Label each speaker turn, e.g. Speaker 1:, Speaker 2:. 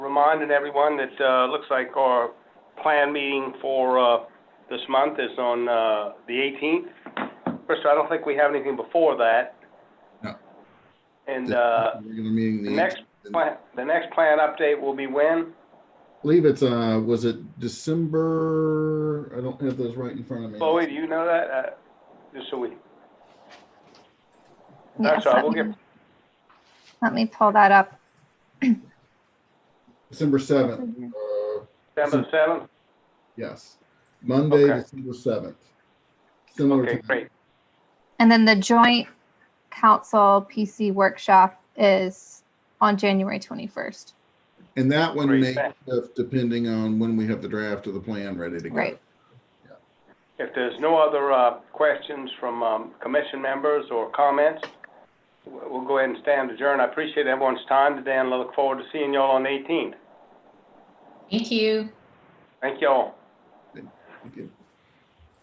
Speaker 1: reminding everyone that, uh, looks like our plan meeting for, uh, this month is on, uh, the eighteenth. First, I don't think we have anything before that.
Speaker 2: No.
Speaker 1: And, uh,
Speaker 2: Regular meeting.
Speaker 1: the
Speaker 2: the-
Speaker 1: next plan, the next plan update will be when?
Speaker 2: I Believe it's, uh, was it December? I don't have those right in front of me.
Speaker 1: Chloe, do you know that? Uh, just so we,
Speaker 3: Yes,
Speaker 1: That's all right,
Speaker 3: let
Speaker 1: we'll get-
Speaker 3: me- Let me pull that up.
Speaker 2: December seventh, uh,
Speaker 1: December seventh?
Speaker 2: yes, Monday,
Speaker 1: Okay.
Speaker 2: December seventh. Similar
Speaker 1: Okay,
Speaker 2: to.
Speaker 1: great.
Speaker 3: And then the joint council PC workshop is on January 21st.
Speaker 2: And that one
Speaker 1: Great,
Speaker 2: may
Speaker 1: thanks.
Speaker 2: shift depending on when we have the draft of the plan ready to go.
Speaker 3: Right.
Speaker 1: If there's no other, uh, questions from, um, commission members or comments, w- we'll go ahead and stand adjourned. I appreciate everyone's time today and I look forward to seeing y'all on the eighteenth.
Speaker 4: Thank you.
Speaker 1: Thank y'all.
Speaker 2: Thank you.